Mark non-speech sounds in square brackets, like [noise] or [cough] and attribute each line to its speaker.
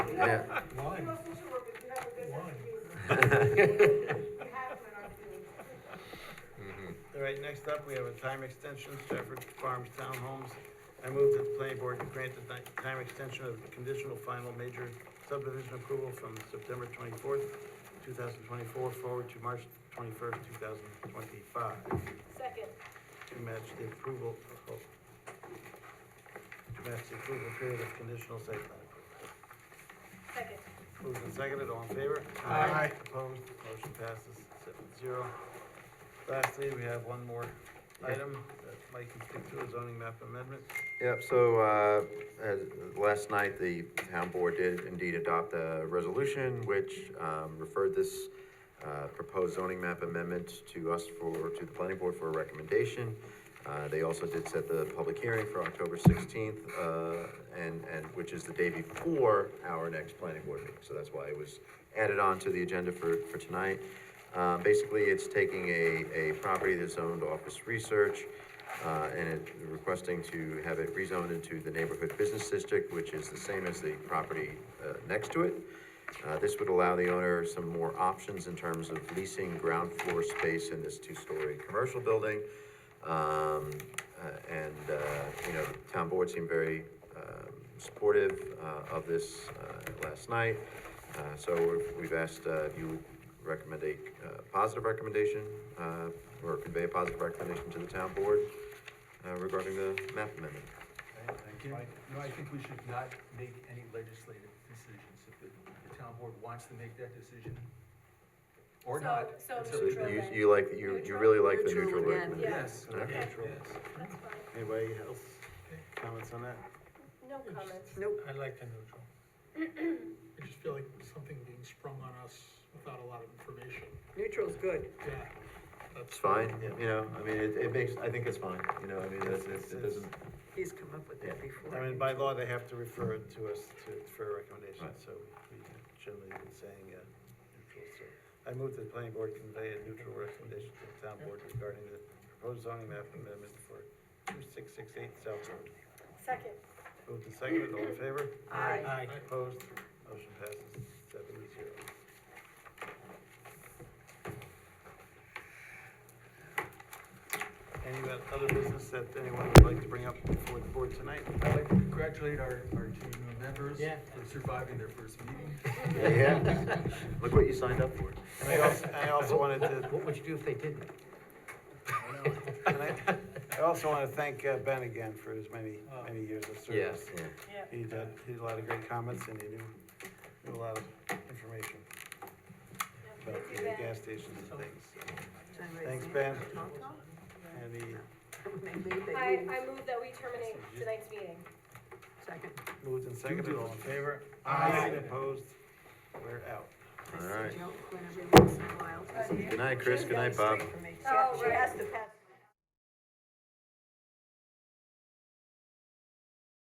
Speaker 1: Yeah.
Speaker 2: Line.
Speaker 3: You're a social worker, you have a business degree. You have one, aren't you?
Speaker 4: All right, next up, we have a time extension, Stafford Farms Townhomes. I move that the planning board grant the ti- time extension of conditional final major subdivision approval from September twenty-fourth, two thousand twenty-four, forward to March twenty-first, two thousand twenty-five,
Speaker 3: Second,
Speaker 4: to match the approval, oh, to match the approval period of conditional site plan approval.
Speaker 3: second,
Speaker 4: Moved and seconded, all in favor?
Speaker 2: Aye.
Speaker 4: Opposed, motion passes seven zero. Lastly, we have one more item that Mike can speak to, a zoning map amendment.
Speaker 1: Yep, so, uh, as, last night, the town board did indeed adopt a resolution which, um, referred this, uh, proposed zoning map amendment to us for, to the planning board for a recommendation. Uh, they also did set the public hearing for October sixteenth, uh, and, and, which is the day before our next planning board meeting, so that's why it was added on to the agenda for, for tonight. Uh, basically, it's taking a, a property that's owned office research, uh, and it requesting to have it rezoned into the neighborhood business district, which is the same as the property, uh, next to it. Uh, this would allow the owner some more options in terms of leasing ground floor space in this two-story commercial building. Um, uh, and, uh, you know, the town board seemed very, um, supportive, uh, of this, uh, last night. Uh, so we've- we've asked, uh, if you would recommend a, uh, positive recommendation, uh, or convey a positive recommendation to the town board, uh, regarding the map amendment.
Speaker 2: Thank you. No, I think we should not make any legislative decisions. If the, the town board wants to make that decision, or
Speaker 3: So-
Speaker 2: not.
Speaker 3: so
Speaker 2: it's up
Speaker 1: So
Speaker 2: to
Speaker 3: neutral.
Speaker 2: them.
Speaker 1: you, you like, you, you really like the neutral
Speaker 5: Neutral again,
Speaker 1: recommendation?
Speaker 3: Yeah.
Speaker 2: Yes.
Speaker 1: Okay.
Speaker 4: Neutral.
Speaker 3: that's fine,
Speaker 4: Anybody else, comments on that?
Speaker 3: no comments.
Speaker 5: Nope.
Speaker 6: I like the neutral. I just feel like something being sprung on us without a lot of information.
Speaker 5: Neutral's good.
Speaker 6: Yeah,
Speaker 1: It's
Speaker 6: that's
Speaker 1: fine, you know, I mean, it, it makes, I think it's fine, you know, I mean, that's, it's- it doesn't,
Speaker 5: He's come up with that before.
Speaker 4: I mean, by law, they have to refer it to us to, for a recommendation,
Speaker 1: Right.
Speaker 4: so we generally been saying, uh, neutral, so. I move that the planning board convey a neutral recommendation to the town board regarding the proposed zoning map amendment for two six six eight South Road.
Speaker 3: Second,
Speaker 4: Moved and seconded, all in favor?
Speaker 3: Aye.
Speaker 6: Aye.
Speaker 4: Opposed, motion passes seven to zero. Any other business that anyone would like to bring up before the board tonight?
Speaker 2: I'd like to congratulate our, our two new members for surviving their first meeting.
Speaker 1: yeah, yeah. Look what you signed up for.
Speaker 4: And I also, I also wanted to,
Speaker 7: What would you do if they didn't?
Speaker 4: [laughs] and I, I also want to thank uh, Ben again for his many,
Speaker 7: Oh.
Speaker 4: many years of service.
Speaker 1: Yeah.
Speaker 3: yeah.
Speaker 4: He did, he had a lot of great comments and he knew, knew a lot of information
Speaker 3: Thank
Speaker 4: about
Speaker 3: you,
Speaker 4: the
Speaker 3: Ben.
Speaker 4: gas stations and things. Thanks,
Speaker 5: Thanks,
Speaker 4: Ben.
Speaker 5: Ben.
Speaker 4: And he
Speaker 3: I, I move that we terminate tonight's meeting.
Speaker 5: Second.
Speaker 4: moved and seconded, all in favor?
Speaker 6: Aye.
Speaker 4: Opposed? We're out.
Speaker 5: I
Speaker 1: All right.
Speaker 5: see Joe Quinn every once in a while.
Speaker 1: Good night, Chris, good night, Bob.
Speaker 5: Yeah,
Speaker 3: Oh,
Speaker 5: she
Speaker 3: right.
Speaker 5: has to pass